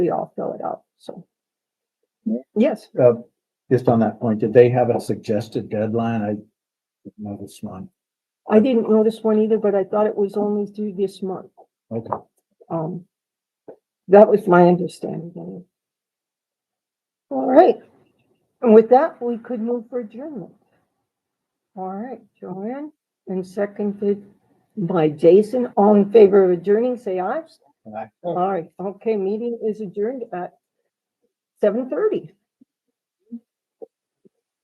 we all fill it out, so. Yes, uh, just on that point, did they have a suggested deadline? I didn't notice one. I didn't notice one either, but I thought it was only through this month. Okay, Um, that was my understanding. anyway. All right, and with that, we could move for adjournment. All right, Joanne, and seconded by Jason, all in favor of adjourning, say aye. Aye. All right, okay, meeting is adjourned at seven thirty.